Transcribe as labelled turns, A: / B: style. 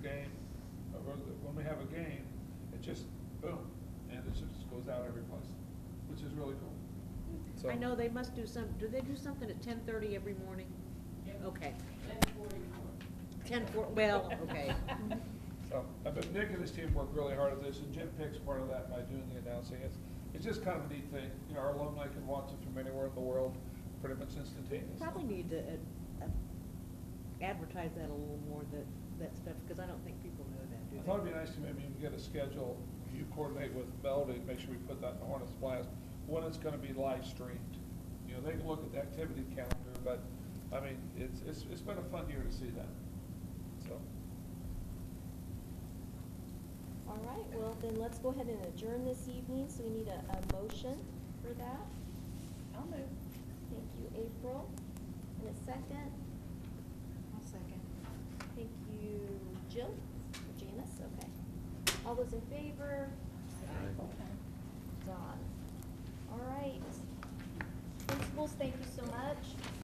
A: just, boom, and it just goes out every place, which is really cool.
B: So-
C: I know they must do some, do they do something at ten thirty every morning? Okay. Ten four, well, okay.
A: So, uh, but Nick and his team work really hard at this, and Jim Pick's part of that by doing the announcing. It's, it's just kind of a neat thing. You know, our alumni can watch it from anywhere in the world, pretty much instantaneously.
C: Probably need to uh, uh, advertise that a little more, that, that stuff, because I don't think people know that, do
A: I
C: they?
A: thought it'd be nice to maybe even get a schedule, you coordinate with Melody, make sure we put that in the Hornets Blast, when it's gonna be live streamed. You know, they can look at the activity calendar, but, I mean, it's, it's, it's been a fun year to see that, so.
D: All right, well, then let's go ahead and adjourn this evening, so we need a, a motion for that.
E: I'll move.
D: Thank you, April. And a second,
E: I'll second.
D: thank you, Jill, or Janice, okay. All those in favor? Don. All right. Principals, thank you so much.